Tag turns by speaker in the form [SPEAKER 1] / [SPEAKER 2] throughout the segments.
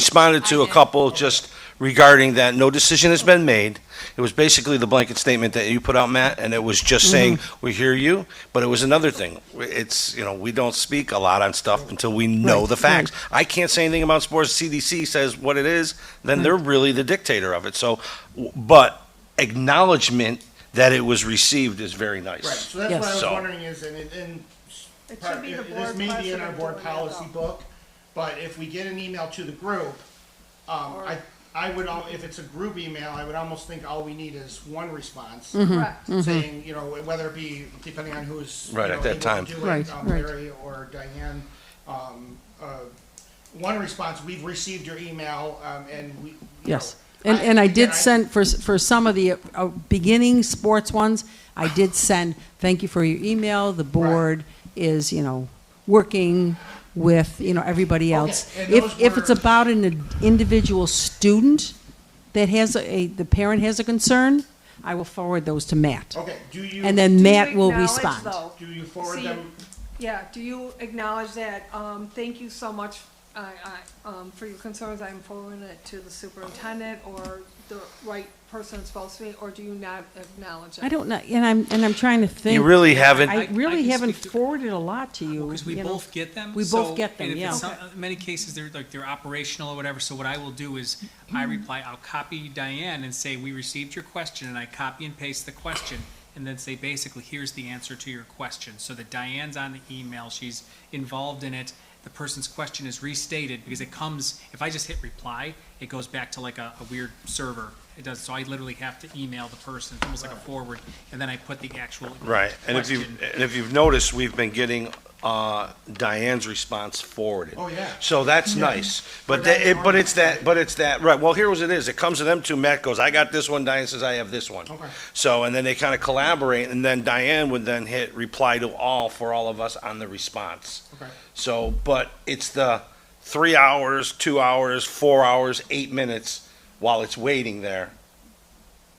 [SPEAKER 1] responded to a couple just regarding that no decision has been made. It was basically the blanket statement that you put out, Matt, and it was just
[SPEAKER 2] Mm-hmm.
[SPEAKER 1] saying, we hear you, but it was another thing. It's, you know, we don't speak a lot on stuff until we know
[SPEAKER 2] Right,
[SPEAKER 1] the facts. I can't say anything about sports. CDC says what it is,
[SPEAKER 2] Mm-hmm.
[SPEAKER 1] then they're really the dictator of it. So, w- but acknowledgement that it was received is very nice.
[SPEAKER 3] Right, so that's
[SPEAKER 2] Yes.
[SPEAKER 3] what I was
[SPEAKER 1] So-
[SPEAKER 3] wondering is, and, it- and.
[SPEAKER 4] It
[SPEAKER 3] part-
[SPEAKER 4] should be the
[SPEAKER 3] This
[SPEAKER 4] board's
[SPEAKER 3] may be in
[SPEAKER 4] pleasure
[SPEAKER 3] our
[SPEAKER 4] to
[SPEAKER 3] board
[SPEAKER 4] do it
[SPEAKER 3] policy
[SPEAKER 4] all.
[SPEAKER 3] book, but if we get an email to the group, um, I, I would, al- if it's a group email, I would almost think all we need is one response.
[SPEAKER 1] Mm-hmm.
[SPEAKER 4] Correct.
[SPEAKER 2] Mm,
[SPEAKER 3] Saying, you know, whether it be, depending on who's. you
[SPEAKER 1] Right,
[SPEAKER 3] know,
[SPEAKER 1] at that
[SPEAKER 3] able to
[SPEAKER 1] time.
[SPEAKER 3] do it,
[SPEAKER 2] Right,
[SPEAKER 3] um,
[SPEAKER 2] right.
[SPEAKER 3] Larry or Diane, um, uh, one response, we've received your email, um, and we. you
[SPEAKER 2] Yes.
[SPEAKER 3] know,
[SPEAKER 2] And, and I
[SPEAKER 3] again,
[SPEAKER 2] did send, for, s- for some of the uh, uh, beginning sports ones, I did send, thank you for your email, the board is, you know, working with, you know, everybody else.
[SPEAKER 3] and
[SPEAKER 2] If,
[SPEAKER 3] those
[SPEAKER 2] if it's
[SPEAKER 3] were-
[SPEAKER 2] about an ind- individual student that has a- a, the parent has a concern, I will forward those to Matt.
[SPEAKER 3] Okay, do you,
[SPEAKER 2] And then
[SPEAKER 4] Do you
[SPEAKER 2] Matt will
[SPEAKER 4] acknowledge,
[SPEAKER 2] respond.
[SPEAKER 4] though-
[SPEAKER 3] do you forward
[SPEAKER 4] See,
[SPEAKER 3] them?
[SPEAKER 4] Yeah, do you acknowledge that, um, thank you so much, I, I, um, for your concerns, I'm forwarding it to the superintendent or the right person it's supposed to be, or do you not acknowledge it?
[SPEAKER 2] I don't know, and I'm, and I'm trying to think.
[SPEAKER 1] You really haven't.
[SPEAKER 2] I
[SPEAKER 5] I
[SPEAKER 2] really
[SPEAKER 5] can
[SPEAKER 2] haven't
[SPEAKER 5] speak to-
[SPEAKER 2] forwarded a lot to you.
[SPEAKER 5] Because we
[SPEAKER 2] you know.
[SPEAKER 5] both get them.
[SPEAKER 2] We
[SPEAKER 5] so-
[SPEAKER 2] both get them,
[SPEAKER 5] and if
[SPEAKER 2] yeah.
[SPEAKER 5] it's some- in Many cases, they're like, they're operational or whatever, so what I will do is,
[SPEAKER 2] Mm-hmm.
[SPEAKER 5] I reply, I'll copy Diane and say, we received your question, and I copy and paste the question, and then say, basically, here's the answer to your question, so that Diane's on the email, she's involved in it, the person's question is restated, because it comes, if I just hit reply, it goes back to like a, a weird server. It does, so I literally have to email the person, almost like a forward, and then I put the actual
[SPEAKER 1] Right, and if
[SPEAKER 5] question.
[SPEAKER 1] you've, and if you've noticed, we've been getting uh, Diane's response forwarded.
[SPEAKER 3] Oh, yeah.
[SPEAKER 1] So that's nice, but that,
[SPEAKER 3] But that's
[SPEAKER 1] it, but
[SPEAKER 3] normal.
[SPEAKER 1] it's that, but it's that, right, well, here was it is, it comes to them two, Matt goes, I got this one, Diane says, I have this one.
[SPEAKER 3] Okay.
[SPEAKER 1] So, and then they kind of collaborate, and then Diane would then hit reply to all for all of us on the response.
[SPEAKER 3] Okay.
[SPEAKER 1] So, but it's the three hours, two hours, four hours, eight minutes while it's waiting there,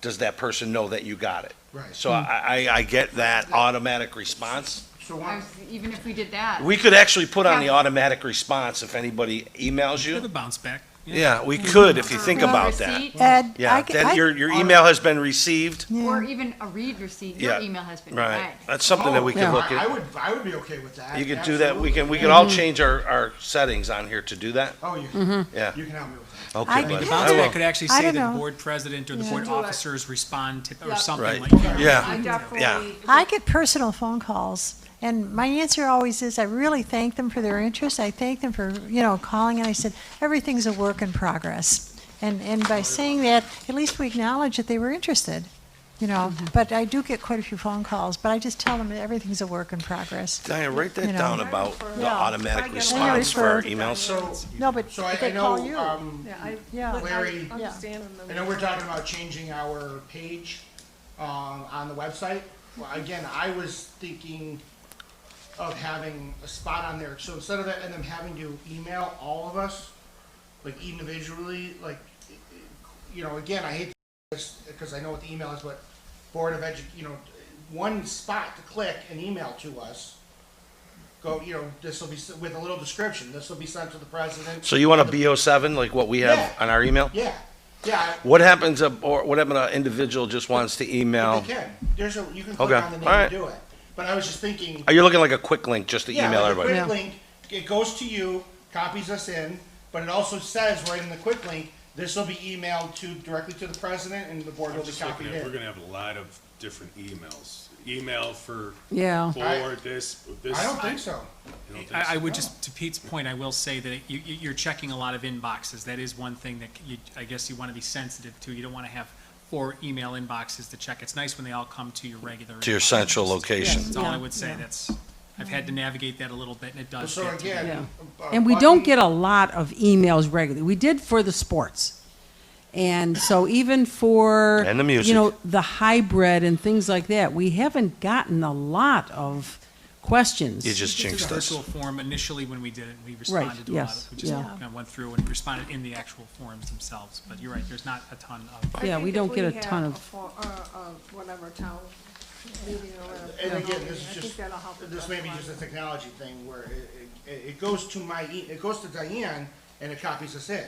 [SPEAKER 1] does that person know that you got it?
[SPEAKER 3] Right.
[SPEAKER 1] So I, I, I get that automatic response.
[SPEAKER 3] So
[SPEAKER 6] I
[SPEAKER 3] one,
[SPEAKER 6] was, even if we did that.
[SPEAKER 1] We could actually put on the automatic response if anybody emails
[SPEAKER 5] Have a
[SPEAKER 1] you.
[SPEAKER 5] bounce back.
[SPEAKER 1] Yeah, we could if you think
[SPEAKER 6] Or a
[SPEAKER 1] about that.
[SPEAKER 6] receipt,
[SPEAKER 7] Ed, I,
[SPEAKER 1] Yeah,
[SPEAKER 7] c-
[SPEAKER 1] that
[SPEAKER 7] I-
[SPEAKER 1] your, your email has been received.
[SPEAKER 6] Or even a read receipt,
[SPEAKER 1] Yeah.
[SPEAKER 6] your email has been
[SPEAKER 1] Right,
[SPEAKER 6] read.
[SPEAKER 1] that's something that we could
[SPEAKER 3] Oh,
[SPEAKER 1] look
[SPEAKER 3] I I
[SPEAKER 1] at.
[SPEAKER 3] would, I would be okay with that.
[SPEAKER 1] You could do that, we can, we
[SPEAKER 3] can.
[SPEAKER 1] could all change our, our settings on here to do that.
[SPEAKER 3] Oh, you,
[SPEAKER 1] Yeah.
[SPEAKER 3] you can help me with that.
[SPEAKER 1] Okay,
[SPEAKER 7] I
[SPEAKER 5] I mean,
[SPEAKER 1] buddy,
[SPEAKER 5] the bounce
[SPEAKER 7] Yeah.
[SPEAKER 1] I will.
[SPEAKER 5] back could actually
[SPEAKER 7] I
[SPEAKER 5] say
[SPEAKER 7] don't
[SPEAKER 5] that the
[SPEAKER 7] know.
[SPEAKER 5] board president or the
[SPEAKER 4] Yeah.
[SPEAKER 5] board
[SPEAKER 4] Do it.
[SPEAKER 5] officers respond to,
[SPEAKER 4] Yeah.
[SPEAKER 5] or something
[SPEAKER 1] Right.
[SPEAKER 5] like that.
[SPEAKER 1] Yeah,
[SPEAKER 4] I definitely.
[SPEAKER 7] I get personal phone calls, and my answer always is, I really thank them for their interest. I thank them for, you know, calling, and I said, everything's a work in progress. And, and by saying that, at least we acknowledge that they were interested, you know. But I do get quite a few phone calls, but I just tell them that everything's a work in progress.
[SPEAKER 1] Diane, write
[SPEAKER 7] You
[SPEAKER 1] that
[SPEAKER 7] know.
[SPEAKER 1] down about the
[SPEAKER 7] Yeah.
[SPEAKER 4] I
[SPEAKER 1] automatic
[SPEAKER 4] get
[SPEAKER 1] response
[SPEAKER 7] it.
[SPEAKER 1] for our
[SPEAKER 7] Yeah.
[SPEAKER 1] emails.
[SPEAKER 3] So,
[SPEAKER 7] No, but
[SPEAKER 3] so I,
[SPEAKER 7] if
[SPEAKER 3] I
[SPEAKER 7] they call
[SPEAKER 3] know,
[SPEAKER 7] you.
[SPEAKER 3] um,
[SPEAKER 4] Yeah, I,
[SPEAKER 7] Yeah.
[SPEAKER 4] I
[SPEAKER 3] Larry- Yeah.
[SPEAKER 4] understand. and then
[SPEAKER 3] I know we're talking about changing our page, um, on the website. Well, again, I was thinking of having a spot on there, so instead of that, and them having to email all of us, like individually, like, you know, again, I hate this, because I know what the email is, but Board of Edu, you know, one spot to click and email to us. Go, you know, this will be, s- with a little description, this will be sent to the president.
[SPEAKER 1] So you want a BO7, like what we have
[SPEAKER 3] Yeah.
[SPEAKER 1] on our email?
[SPEAKER 3] Yeah, yeah,
[SPEAKER 1] What happens, if- or what happens, if an individual just wants to
[SPEAKER 3] I-
[SPEAKER 1] email?
[SPEAKER 3] they can, there's a, you can click
[SPEAKER 1] Okay,
[SPEAKER 3] on the name
[SPEAKER 1] alright.
[SPEAKER 3] and do it, but I was just thinking.
[SPEAKER 1] Are you looking like a quick link just to
[SPEAKER 3] Yeah,
[SPEAKER 1] email
[SPEAKER 3] like a
[SPEAKER 1] everybody?
[SPEAKER 3] Quick link, it goes to you, copies us in, but it also says right in the quick link, this will be emailed to, directly to the president and the board will
[SPEAKER 8] I'm
[SPEAKER 3] be
[SPEAKER 8] just looking
[SPEAKER 3] copied
[SPEAKER 8] at, we're
[SPEAKER 3] in.
[SPEAKER 8] gonna have a lot of different emails. Email for
[SPEAKER 2] Yeah.
[SPEAKER 8] board, this, this.
[SPEAKER 3] I don't think so.
[SPEAKER 8] You don't think so?
[SPEAKER 5] I, I would just, to Pete's point, I will say that you, you- you're checking a lot of inboxes. That is one thing that you, I guess you want to be sensitive to. You don't want to have four email inboxes to check. It's nice when they all come to your regular.
[SPEAKER 1] To your
[SPEAKER 5] inbox.
[SPEAKER 1] central location.
[SPEAKER 5] That's all
[SPEAKER 2] Yeah.
[SPEAKER 5] I would say. That's, I've had to navigate that a little bit and it does.
[SPEAKER 3] So
[SPEAKER 5] get to me.
[SPEAKER 3] again. uh,
[SPEAKER 2] And we don't
[SPEAKER 3] Bucky-
[SPEAKER 2] get a lot of emails regularly. We did for the sports. And so even for
[SPEAKER 1] And the music.
[SPEAKER 2] you know the hybrid and things like that, we haven't gotten a lot of questions.
[SPEAKER 1] You just
[SPEAKER 5] It's a
[SPEAKER 1] jinxed us.
[SPEAKER 5] virtual form initially when we did it, we responded to a lot
[SPEAKER 2] yes,
[SPEAKER 5] of, we just
[SPEAKER 2] yeah.
[SPEAKER 5] kind of went through and responded in the actual forms themselves. But you're right, there's not a ton of.
[SPEAKER 2] Yeah, we don't get a ton of-
[SPEAKER 4] Uh, uh, whatever town meeting or whatever.
[SPEAKER 3] uh, And again,
[SPEAKER 4] I
[SPEAKER 3] this is
[SPEAKER 4] think
[SPEAKER 3] just,
[SPEAKER 4] that'll help
[SPEAKER 3] this
[SPEAKER 4] address
[SPEAKER 3] may be
[SPEAKER 4] a lot.
[SPEAKER 3] just a technology thing where it, it, it goes to my, e- it goes to Diane and it copies us in.